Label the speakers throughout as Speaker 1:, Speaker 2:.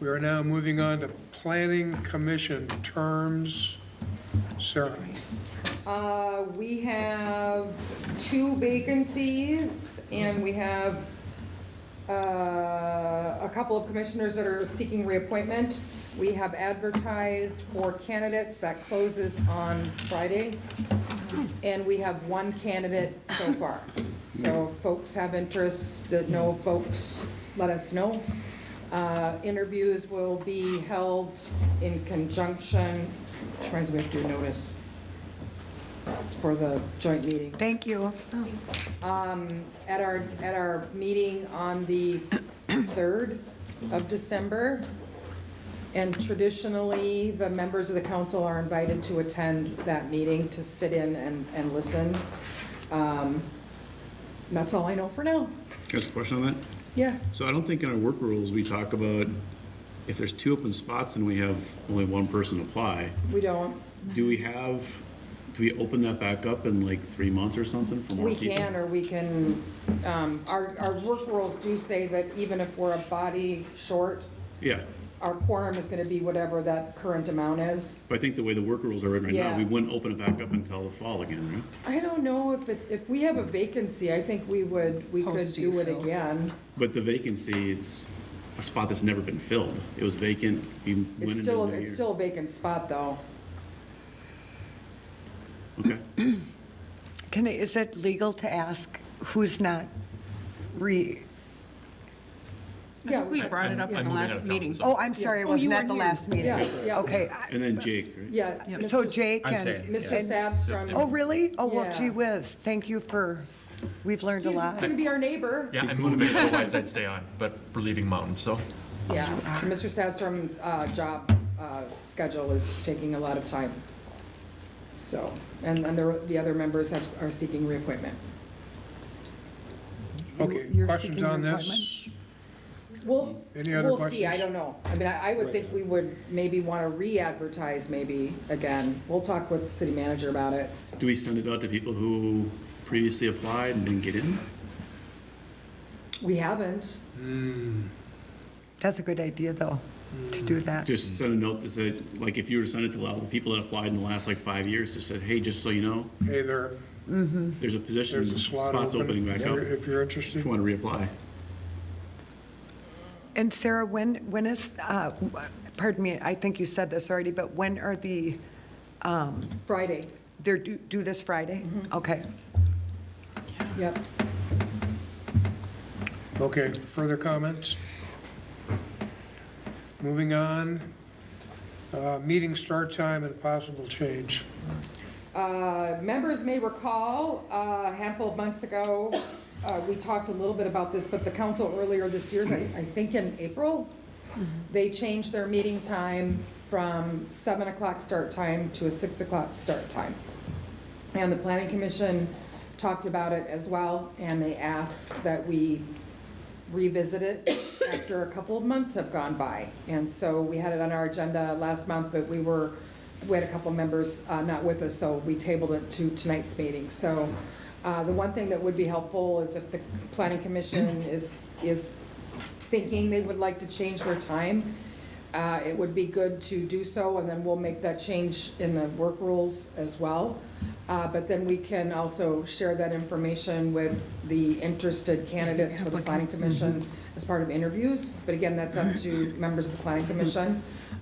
Speaker 1: We are now moving on to Planning Commission terms. Sarah,
Speaker 2: Uh, we have two vacancies, and we have, uh, a couple of commissioners that are seeking reappointment. We have advertised for candidates, that closes on Friday, and we have one candidate so far. So if folks have interest, that know folks, let us know. Uh, interviews will be held in conjunction, which reminds me, we have to do notice for the joint meeting.
Speaker 3: Thank you.
Speaker 2: At our, at our meeting on the 3rd of December, and traditionally, the members of the council are invited to attend that meeting to sit in and, and listen. Um, That's all I know for now.
Speaker 4: Can I ask a question on that?
Speaker 2: Yeah,
Speaker 4: So I don't think in our work rules, we talk about if there's two open spots and we have only one person apply,
Speaker 2: we don't,
Speaker 4: do we have, do we open that back up in like three months or something for more
Speaker 2: we
Speaker 4: people?
Speaker 2: can or we can, um, our, our work rules do say that even if we're a body short,
Speaker 4: Yeah,
Speaker 2: our quorum is going to be whatever that current amount is.
Speaker 4: but I think the way the work rules are written right now,
Speaker 2: Yeah.
Speaker 4: we wouldn't open it back up until the fall again, right?
Speaker 2: I don't know if it, if we have a vacancy, I think we would, we could
Speaker 3: Post you,
Speaker 2: do it
Speaker 3: Phil.
Speaker 2: again.
Speaker 4: But the vacancy, it's a spot that's never been filled. It was vacant, we went into
Speaker 2: It's
Speaker 4: the
Speaker 2: still,
Speaker 4: new
Speaker 2: it's
Speaker 4: year.
Speaker 2: still a vacant spot, though.
Speaker 4: Okay,
Speaker 3: Can, I- is it legal to ask who's not re,
Speaker 5: I think we
Speaker 2: Yeah,
Speaker 5: brought it up in the last meeting.
Speaker 3: oh, I'm sorry, it
Speaker 2: Oh, you
Speaker 3: wasn't at
Speaker 2: weren't
Speaker 3: the
Speaker 2: here.
Speaker 3: last meeting.
Speaker 2: Yeah, yeah.
Speaker 3: Okay, I-
Speaker 4: and then Jake, right?
Speaker 2: Yeah. Mr.
Speaker 3: so
Speaker 2: S-
Speaker 3: Jake
Speaker 6: I'm
Speaker 3: and,
Speaker 6: staying.
Speaker 2: Mr. Savstrom.
Speaker 3: oh, really? Oh, well,
Speaker 2: Yeah.
Speaker 3: gee whiz, thank you for, we've learned a
Speaker 2: He's
Speaker 3: lot.
Speaker 2: gonna be our neighbor.
Speaker 6: Yeah, I'm moving, otherwise I'd stay on, but we're leaving Mountain, so.
Speaker 2: Yeah, Mr. Savstrom's, uh, job, uh, schedule is taking a lot of time. So, and, and the, the other members have, are seeking reappointment.
Speaker 1: okay,
Speaker 3: You're
Speaker 1: questions
Speaker 3: seeking
Speaker 1: on this?
Speaker 3: reappointment?
Speaker 2: Well,
Speaker 1: Any other
Speaker 2: we'll see, I
Speaker 1: questions?
Speaker 2: don't know. I mean, I I would think we would maybe wanna re-advertise maybe again. We'll talk with the city manager about it.
Speaker 4: Do we send it out to people who previously applied and didn't get in?
Speaker 2: We haven't.
Speaker 3: That's a good idea, though, to do that.
Speaker 1: Mm-hmm.
Speaker 4: Just send a note that said, like, if you were to send it to all the people that applied in the last like five years, just said, hey, just so you know,
Speaker 1: Hey, there,
Speaker 4: there's a position,
Speaker 1: Mm-hmm. there's a slot
Speaker 4: spots opening
Speaker 1: open
Speaker 4: back up, if
Speaker 1: if you're
Speaker 4: you
Speaker 1: interested.
Speaker 4: want to reapply.
Speaker 3: And Sarah, when, when is, uh, pardon me, I think you said this already, but when are the,
Speaker 2: Friday,
Speaker 3: they're due due this Friday?
Speaker 2: Mm-hmm.
Speaker 3: Okay.
Speaker 2: yep.
Speaker 1: Okay, further comments? Moving on, Uh, meeting start time and possible change.
Speaker 2: Uh, Members may recall, uh, a handful of months ago, uh, we talked a little bit about this, but the council earlier this year, I I think in April, they changed their meeting time from 7 o'clock start time to a 6 o'clock start time. And the planning commission talked about it as well, and they asked that we revisit it after a couple of months have gone by. And so we had it on our agenda last month, but we were, we had a couple of members uh, not with us, so we tabled it to tonight's meeting. So uh, the one thing that would be helpful is if the planning commission is, is thinking they would like to change their time, uh, it would be good to do so, and then we'll make that change in the work rules as well. Uh, But then we can also share that information with the interested candidates for the planning
Speaker 3: Mm-hmm.
Speaker 2: commission as part of interviews. But again, that's up to members of the planning commission.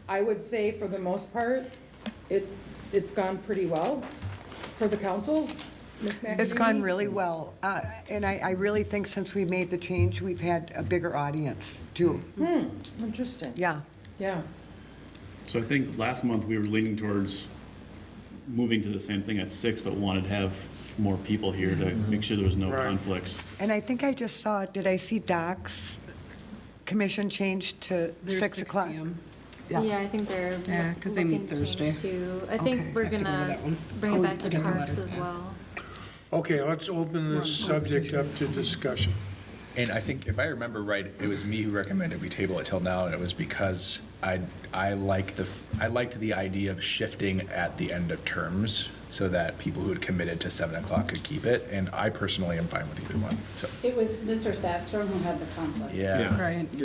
Speaker 2: I would say for the most part, it, it's gone pretty well for the council. Ms. McEnany?
Speaker 3: It's gone really well, uh, and I, I really think since we made the change, we've had a bigger audience, too.
Speaker 2: Mm-hmm. Interesting.
Speaker 3: Yeah,
Speaker 2: Yeah.
Speaker 4: So I think last month we were leaning towards moving to the same thing at six, but wanted to have more people here to make sure there was no
Speaker 1: Mm-hmm. Right.
Speaker 4: conflicts.
Speaker 3: and I think I just saw, did I see Doc's commission change to
Speaker 5: There's
Speaker 3: 6 o'clock?
Speaker 5: p.m.
Speaker 3: Yeah.
Speaker 7: Yeah, I think they're.
Speaker 5: Yeah, 'cause they meet
Speaker 7: looking to
Speaker 5: Thursday.
Speaker 7: change too. I
Speaker 3: Okay.
Speaker 7: think we're
Speaker 5: Have to go to
Speaker 7: gonna
Speaker 5: that one.
Speaker 7: bring
Speaker 5: Oh,
Speaker 7: it back
Speaker 5: I
Speaker 7: to
Speaker 5: got the
Speaker 7: parks
Speaker 5: letter,
Speaker 7: as
Speaker 5: yeah.
Speaker 7: well.
Speaker 1: Okay, let's open this subject up to discussion.
Speaker 6: And I think, if I remember right, it was me who recommended we table it till now, and it was because I, I like the, I liked the idea of shifting at the end of terms so that people who had committed to seven o'clock could keep it, and I personally am fine with either one, so,
Speaker 8: It was Mr. Sastrom who had the conflict.
Speaker 6: yeah.
Speaker 5: Right.